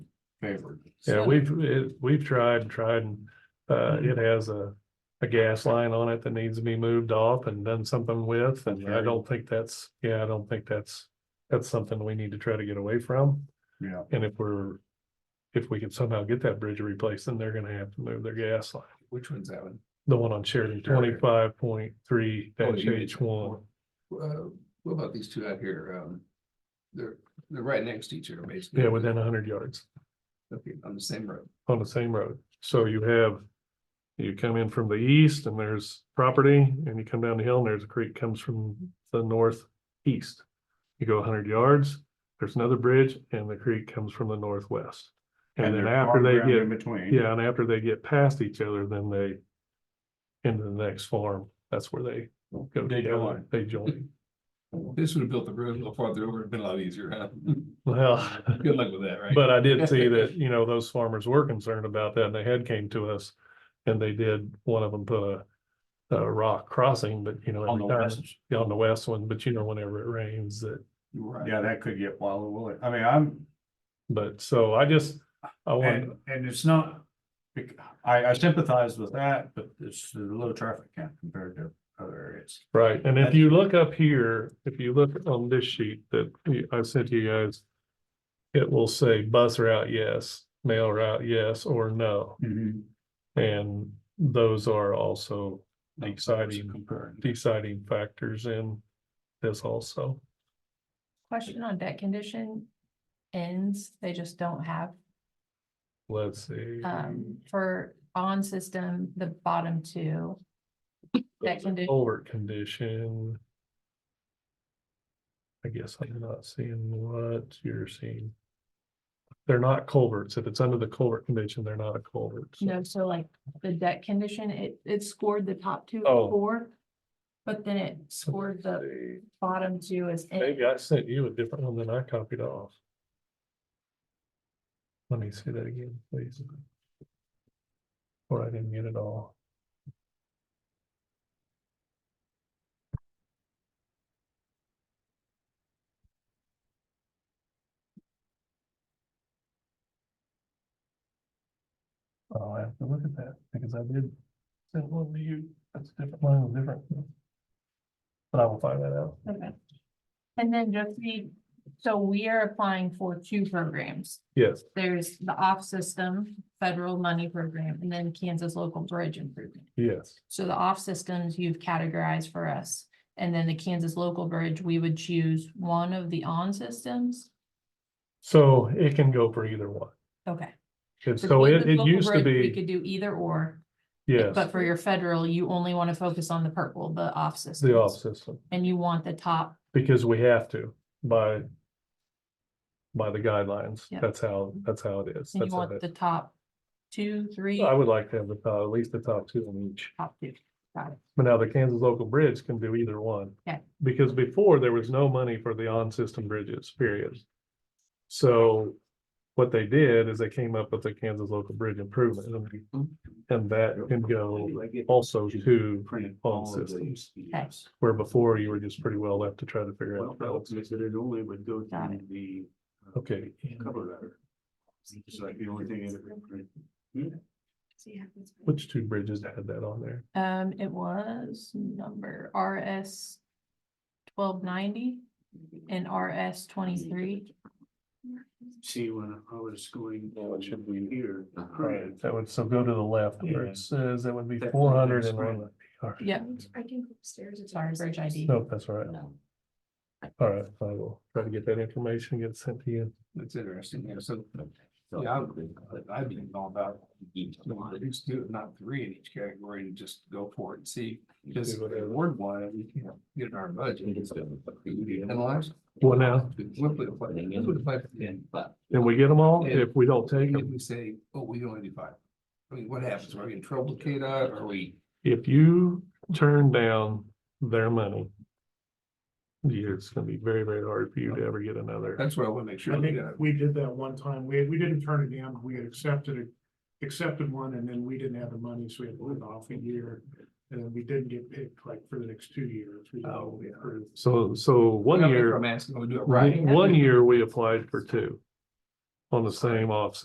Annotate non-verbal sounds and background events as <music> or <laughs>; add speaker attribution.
Speaker 1: favored.
Speaker 2: Yeah,
Speaker 3: So-
Speaker 2: we've, it, we've tried, tried, and, uh,
Speaker 1: Mm-hmm.
Speaker 2: it has a, a gas line on it that needs to be moved off and done something with, and I
Speaker 1: Okay.
Speaker 2: don't think that's, yeah, I don't think that's. That's something we need to try to get away from,
Speaker 1: Yeah,
Speaker 2: and if we're, if we could somehow get that bridge replaced, then they're gonna have to move their gas line.
Speaker 1: which one's that one?
Speaker 2: The one on Sheridan,
Speaker 1: Sheridan.
Speaker 2: twenty-five point three
Speaker 1: Oh,
Speaker 2: dash
Speaker 1: you did.
Speaker 2: H one.
Speaker 1: Uh, what about these two out here? Um, they're, they're right next to each other, basically.
Speaker 2: Yeah, within hundred yards
Speaker 1: Okay, on the same road.
Speaker 2: on the same road. So you have, you come in from the east and there's property and you come down the hill and there's a creek comes from the northeast. You go hundred yards, there's another bridge and the creek comes from the northwest. And then
Speaker 1: there's
Speaker 2: after
Speaker 1: farm
Speaker 2: they
Speaker 1: ground
Speaker 2: get
Speaker 1: In between.
Speaker 2: Yeah, and after they get past each other, then they. Into the next farm, that's where they go
Speaker 1: They
Speaker 2: together,
Speaker 1: join.
Speaker 2: they join. <laughs>
Speaker 1: This would have built the road a little farther over, it'd been a lot easier, huh? <laughs>
Speaker 2: Well,
Speaker 1: Good luck with that, right?
Speaker 2: but I did see that, you know, those farmers were concerned about that and they had came to us. And they did, one of them put a, a rock crossing, but you know.
Speaker 4: On the
Speaker 2: every time-
Speaker 4: west,
Speaker 2: yeah, On the west one, but you know, whenever it rains that,
Speaker 1: You're right.
Speaker 4: yeah, that could get wild, will it? I mean, I'm,
Speaker 2: but so I just, I want,
Speaker 4: and, and it's not. bec- I, I sympathize with that, but it's a low traffic count compared to other areas.
Speaker 2: right, and if you look up here, if you look on this sheet that we- I sent you guys. It will say bus route, yes, mail route, yes, or no. And those are also deciding,
Speaker 4: Comparing.
Speaker 2: deciding factors in this also.
Speaker 3: Question on debt condition ends, they just don't have,
Speaker 2: Let's see.
Speaker 3: um, for on system, the bottom two. Debt condition,
Speaker 2: Over condition. I guess I'm not seeing what you're seeing. They're not culverts. If it's under the culvert condition, they're not a culvert. so-
Speaker 3: no, so like the debt condition, it, it scored the top two
Speaker 2: Oh.
Speaker 3: or four. But then it scored the bottom two as. in-
Speaker 2: Maybe I sent you a different one than I copied off. Let me see that again, please. Or I didn't get it all. Oh, I have to look at that because I did send one to you. That's a different, mine was different. But I will find that out.
Speaker 3: Okay. And then just the, so we are applying for two programs.
Speaker 2: Yes.
Speaker 3: There's the off system, federal money program, and then Kansas local bridge improvement.
Speaker 2: Yes,
Speaker 3: So the off systems you've categorized for us. And then the Kansas local bridge, we would choose one of the on systems.
Speaker 2: so it can go for either one.
Speaker 3: Okay.
Speaker 2: And so it,
Speaker 3: Kansas
Speaker 2: it
Speaker 3: local
Speaker 2: used to
Speaker 3: bridge, We
Speaker 2: be,
Speaker 3: could do either or,
Speaker 2: yes,
Speaker 3: but for your federal, you only want to focus on the purple, the off system.
Speaker 2: the off system,
Speaker 3: And you want the top,
Speaker 2: because we have to by by the guidelines.
Speaker 3: Yeah.
Speaker 2: That's how, that's how it is.
Speaker 3: and
Speaker 2: That's
Speaker 3: you
Speaker 2: how
Speaker 3: want
Speaker 2: it-
Speaker 3: the top two, three,
Speaker 2: I would like to have the, top- at least the top two on each.
Speaker 3: top two. Got it.
Speaker 2: But now the Kansas local bridge can do either one.
Speaker 3: Okay.
Speaker 2: Because before there was no money for the on-system bridges, period. So what they did is they came up with the Kansas local bridge improvement and-
Speaker 3: Mm-hmm.
Speaker 2: and that can go also to
Speaker 4: Print
Speaker 2: all
Speaker 4: all of
Speaker 2: systems.
Speaker 4: these.
Speaker 3: Yes.
Speaker 2: Where before you were just pretty well left to try to figure
Speaker 4: Well,
Speaker 2: out.
Speaker 4: that
Speaker 2: else.
Speaker 4: it only would go
Speaker 3: Got
Speaker 4: to the. uh,
Speaker 2: Okay.
Speaker 4: Cover letter. It's like the only thing. in it.
Speaker 2: Which two bridges had that on there?
Speaker 3: Um, it was number RS twelve ninety and RS twenty-three.
Speaker 4: See, when I was going, what should we hear?
Speaker 2: Right, that would, so go to the left where
Speaker 4: Yeah.
Speaker 2: it says that would be
Speaker 4: That's
Speaker 2: four hundred and
Speaker 4: right.
Speaker 2: one. All right.
Speaker 3: Yeah.
Speaker 5: I can go upstairs. if
Speaker 3: Sorry,
Speaker 5: there's
Speaker 3: Bridge
Speaker 5: something.
Speaker 3: ID.
Speaker 2: Nope, that's all right.
Speaker 5: No.
Speaker 2: All right, I will try to get that information, get it sent to you.
Speaker 1: That's interesting, yeah, so, yeah, I would- I'd be all about reduce two, not three in each category and just go for it and see. Just
Speaker 2: Do whatever.
Speaker 1: award one, and you can get it in our budget. And lives.
Speaker 2: Well, now,
Speaker 1: We'll put it like- we'll put it like-
Speaker 2: Can we get them all?
Speaker 1: Yeah.
Speaker 2: If we don't take
Speaker 1: If
Speaker 2: them,
Speaker 1: we say, oh, we only do five. I mean, what happens? Are we in trouble, Kate? Are we?
Speaker 2: if you turn down their money. you- It's gonna be very, very hard for you to ever get another.
Speaker 1: That's what I want to make sure.
Speaker 6: I
Speaker 1: we
Speaker 6: think
Speaker 1: got.
Speaker 6: we did that one time. We, we didn't turn it down. We had accepted it, accepted one and then we didn't have the money, so we had to live off a year. And then we didn't get picked like for the next two years. We didn't
Speaker 1: Oh, yeah.
Speaker 6: approve.
Speaker 2: So, so one
Speaker 1: I'm
Speaker 2: year,
Speaker 1: asking, we do it right.
Speaker 2: one year we applied for two. On the same off